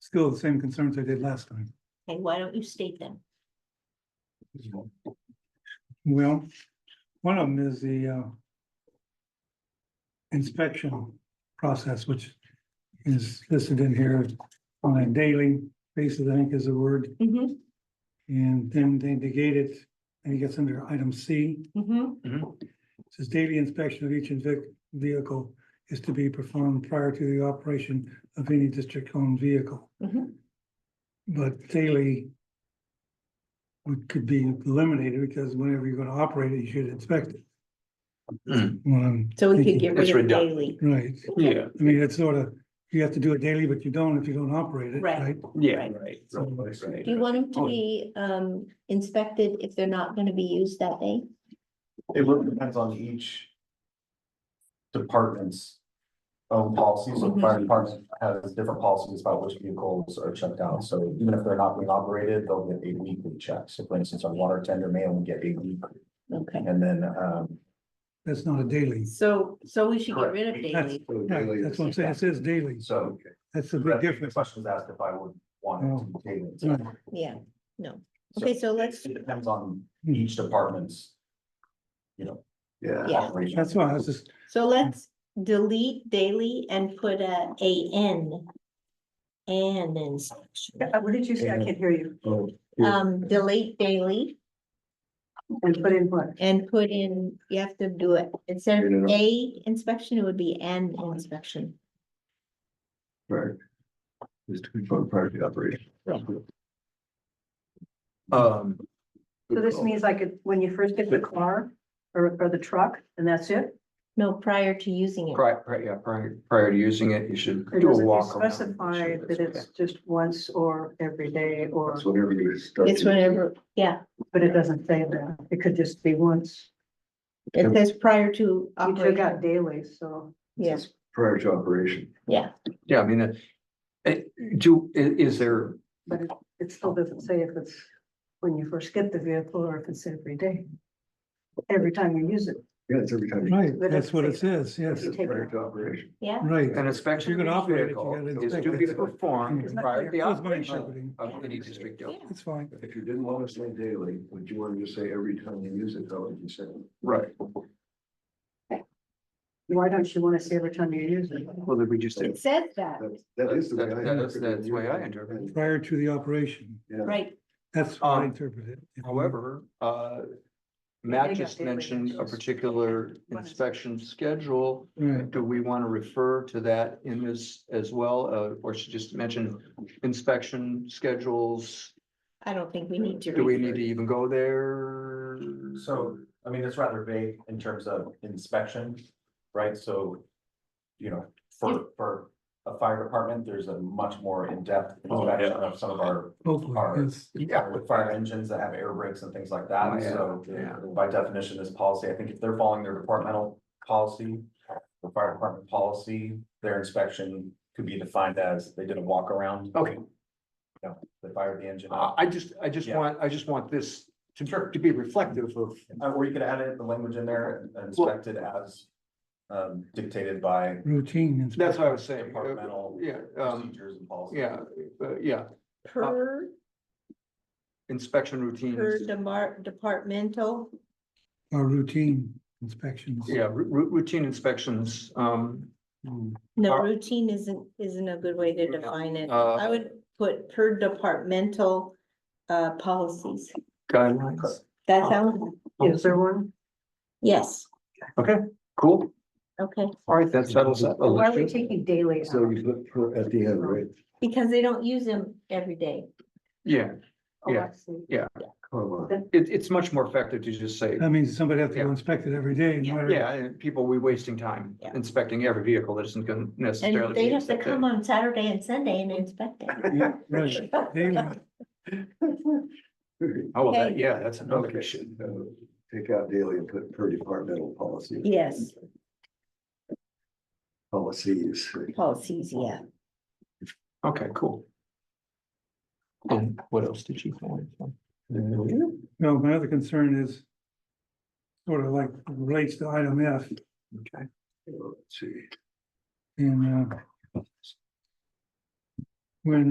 still the same concerns I did last time. Okay, why don't you state them? Well, one of them is the uh. Inspection process, which is listed in here on a daily basis, I think is the word. Mm-hmm, And then they negate it, and it gets under item C, mm-hmm, It says daily inspection of each invic- vehicle is to be performed prior to the operation of any district-owned vehicle. Mhm. But daily would- could be eliminated because whenever you're gonna operate it, you should inspect it. Well, I'm so we could thinking- get It's rid of redundant. daily. Right, Yeah, I mean, it's sort of, you have to do it daily, but you don't if you don't operate it, Right. right? yeah, Right. right. So- right, right. Do you want them to Oh. be um inspected if they're not gonna be used that day? It really depends on each department's own policies, Mm-hmm. so the fire department has different policies about which vehicles are checked out, so even if they're not being operated, they'll get a weekly check, so for instance, our water tender may only get a week, Okay, and then, um. That's not a daily. so so we should get rid of correct. daily. Right, that's what I'm saying, it says daily, So. that's the big The difference. question was asked if I would want it to be daily. Right. Yeah, no. Okay, so let's, It depends on each department's, you know. Yeah. Yeah. operation. That's why I was just, so let's delete daily and put a A N. And then section. Yeah, Uh, What did you say? I can't hear you. Oh, Um, delete daily And put in what? and put in, you have to do it. Instead Get of it up. A inspection, it would be an inspection. Right. Just to confirm prior to the operation. Um. So this means like it- when you first get the car or, or the truck and that's it? No, prior to using it. Prior, prior, yeah, prior, prior to using it, you should Or do a does it walk. around and specify make sure that it's just once or every day or, That's whatever you start. It's whenever, yeah, but it doesn't say that. It could just be once. it says prior to You took out operation. daily, so. Yeah, Prior to operation. yeah. Yeah, I mean, uh, uh, do, i- is there, But it, it still doesn't say if it's when you first get the vehicle or if it's every day. Every time you use it. yeah, it's every time. right, But that's what it it's- says, yes, It's- Prior to operation. Yeah, right. An inspection If you're of gonna each operate it, you vehicle gotta is to inspect be it. performed It's not prior to the That was my operation interpreting. of any district. building. It's fine. If you didn't want to say daily, would you want to just say every time you use it, how would you say? it? Right, Why don't you want to say every time you use it? well, then we just did. it says that, That's- That is the way I. That- that is- interpret it. that's the way I interpret Prior to the operation, Yeah. right, that's what I Um, interpreted. it. However, uh, they Matt got just their mentioned a regulations. particular What is- inspection schedule. Right, Do we want to refer to that in this as well, uh, or should just mention inspection schedules? I don't think we need to. Do we read need to even go there? So, I mean, it's rather vague in terms of inspection, right? So, you know, for, for a fire department, there's a much more in-depth Oh, yeah. inspection of some of our hopefully, Are- yes. Yeah. with fire engines that have air brakes and things like Oh, that. yeah, So yeah. by definition, this policy, I think if they're following their departmental policy, the fire department policy, their inspection could be defined as they did a walk around, Okay, they fired the engine. I, up. I just, I just Uh, Yeah. want, I just want this to, to be reflective of, Uh, Or you could add it, the language in there, inspected as um, dictated by Routine. inspection. that's what I was saying. Departmental Yeah, um, procedures and policies. yeah, uh, yeah, Per, inspection routines. per demar- departmental, Or routine inspections. Yeah, ru- ru- routine inspections, um, no, Are- routine isn't, isn't a good way to define it. Uh, I would put per departmental uh policies. guidelines. That sounds, Is there one? yes, Cool. okay, All right, that settles that. Why are we taking daily? So out? you put per at the end, right? because they don't use them every day. Yeah, Oh, yeah. I see. Comma. it, it's much more effective to just say, That means somebody has to Yeah. go inspect it every day. no matter- yeah, and people, we wasting time Yeah. inspecting every vehicle that isn't gonna necessarily. And they be have to inspected. come on Saturday and Sunday and inspect it. Yeah, right. Daily. Oh, well, that, Okay. yeah, that's another Okay. issue. So Take out daily and put per departmental policy. Yes, Policies. Oh, policies, yeah. Okay, cool. And what else did you find? No, my other concern is sort of like relates to item F Okay. Let's see. in uh when